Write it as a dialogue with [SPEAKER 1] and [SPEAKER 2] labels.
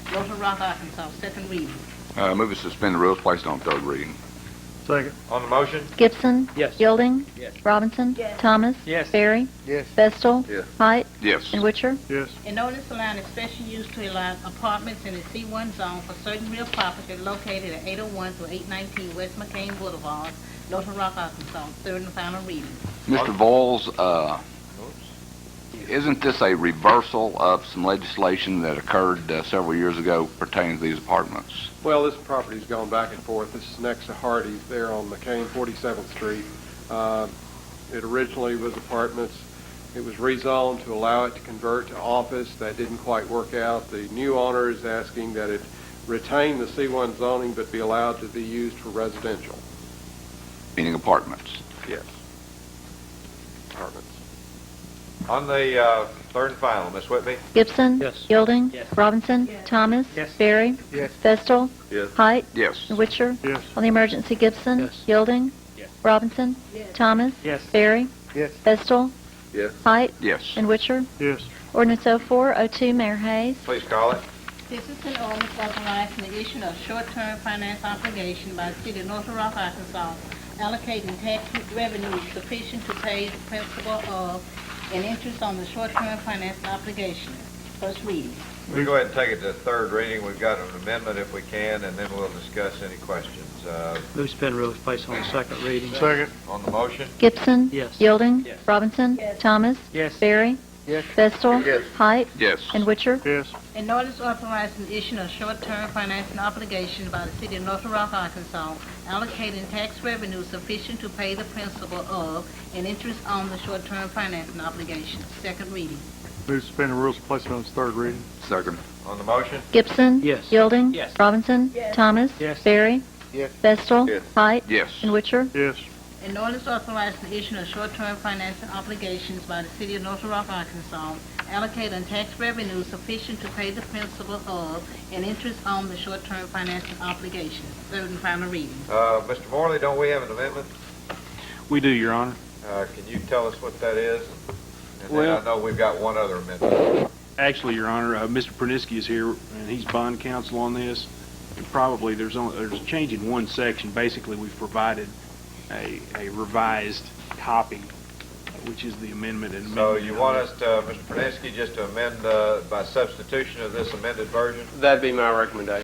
[SPEAKER 1] Little Rock, Arkansas, second reading.
[SPEAKER 2] Uh, Move to suspend the rules, place it on third reading.
[SPEAKER 3] Second.
[SPEAKER 4] On the motion?
[SPEAKER 5] Gibson.
[SPEAKER 3] Yes.
[SPEAKER 5] Yielding.
[SPEAKER 4] Yes.
[SPEAKER 5] Robinson. Thomas.
[SPEAKER 3] Yes.
[SPEAKER 5] Barry.
[SPEAKER 4] Yes.
[SPEAKER 5] Bestel.
[SPEAKER 2] Yes.
[SPEAKER 5] Height.
[SPEAKER 2] Yes.
[SPEAKER 5] And Witcher.
[SPEAKER 3] Yes.
[SPEAKER 1] An ordinance allowing special use to allow apartments in the C1 zone for certain real property located at 801 through 819 West McCain Boulevard, Little Rock, Arkansas, third and final reading.
[SPEAKER 2] Mr. Voills, uh, isn't this a reversal of some legislation that occurred uh, several years ago pertaining to these apartments?
[SPEAKER 6] Well, this property's gone back and forth. This is next to Hardee's there on McCain, 47th Street. Uh, It originally was apartments. It was rezoned to allow it to convert to office. That didn't quite work out. The new owner is asking that it retain the C1 zoning but be allowed to be used for residential.
[SPEAKER 2] Meaning apartments?
[SPEAKER 6] Yes. Apartments.
[SPEAKER 4] On the uh, third and final, Miss Whitby?
[SPEAKER 5] Gibson.
[SPEAKER 3] Yes.
[SPEAKER 5] Yielding.
[SPEAKER 3] Yes.
[SPEAKER 5] Robinson. Thomas.
[SPEAKER 3] Yes.
[SPEAKER 5] Barry.
[SPEAKER 3] Yes.
[SPEAKER 5] Bestel.
[SPEAKER 4] Yes.
[SPEAKER 5] Height.
[SPEAKER 2] Yes.
[SPEAKER 5] And Witcher.
[SPEAKER 3] Yes.
[SPEAKER 5] On the emergency, Gibson.
[SPEAKER 3] Yes.
[SPEAKER 5] Yielding.
[SPEAKER 3] Yes.
[SPEAKER 5] Robinson. Thomas.
[SPEAKER 3] Yes.
[SPEAKER 5] Barry.
[SPEAKER 3] Yes.
[SPEAKER 5] Bestel.
[SPEAKER 4] Yes.
[SPEAKER 5] Height.
[SPEAKER 2] Yes.
[SPEAKER 5] And Witcher.
[SPEAKER 3] Yes.
[SPEAKER 5] Ordinance 0402, Mayor Hayes.
[SPEAKER 4] Please call it.
[SPEAKER 1] This is an ordinance authorizing the issue of short-term finance obligation by the city of North Rock, Arkansas, allocating tax revenue sufficient to pay the principal of and interest on the short-term finance obligation. First reading.
[SPEAKER 4] We'll go ahead and take it to third reading. We've got an amendment if we can, and then we'll discuss any questions. Uh,
[SPEAKER 7] Move spin rules, place on second reading.
[SPEAKER 3] Second.
[SPEAKER 4] On the motion?
[SPEAKER 5] Gibson.
[SPEAKER 7] Yes.
[SPEAKER 5] Yielding.
[SPEAKER 3] Yes.
[SPEAKER 5] Robinson. Thomas.
[SPEAKER 3] Yes.
[SPEAKER 5] Barry.
[SPEAKER 3] Yes.
[SPEAKER 5] Bestel.
[SPEAKER 4] Yes.
[SPEAKER 5] Height.
[SPEAKER 2] Yes.
[SPEAKER 5] And Witcher.
[SPEAKER 3] Yes.
[SPEAKER 1] An ordinance authorizing the issue of short-term financing obligation by the city of North Rock, Arkansas, allocating tax revenue sufficient to pay the principal of and interest on the short-term financing obligation. Second reading.
[SPEAKER 3] Move to suspend the rules and place it on its third reading.
[SPEAKER 2] Second.
[SPEAKER 4] On the motion?
[SPEAKER 5] Gibson.
[SPEAKER 7] Yes.
[SPEAKER 5] Yielding.
[SPEAKER 3] Yes.
[SPEAKER 5] Robinson. Thomas.
[SPEAKER 3] Yes.
[SPEAKER 5] Barry.
[SPEAKER 3] Yes.
[SPEAKER 5] Bestel.
[SPEAKER 4] Yes.
[SPEAKER 5] Height.
[SPEAKER 2] Yes.
[SPEAKER 5] And Witcher.
[SPEAKER 3] Yes.
[SPEAKER 1] An ordinance authorizing the issue of short-term financing obligations by the city of North Rock, Arkansas, allocating tax revenue sufficient to pay the principal of and interest on the short-term financing obligations. Third and final reading.
[SPEAKER 4] Uh, Mr. Morley, don't we have an amendment?
[SPEAKER 3] We do, Your Honor.
[SPEAKER 4] Uh, Can you tell us what that is? And then I
[SPEAKER 8] Well-
[SPEAKER 4] know we've got one other amendment.
[SPEAKER 8] Actually, Your Honor, uh, Mr. Perniske is here, and he's bond counsel on this. And probably, there's only, there's a change in one section. Basically, we've provided a a revised copy, which is the amendment and
[SPEAKER 4] So
[SPEAKER 8] amendment
[SPEAKER 4] you want us to, Mr. Praniski, just to amend uh, by substitution of this amended version?
[SPEAKER 8] That'd be my recommendation.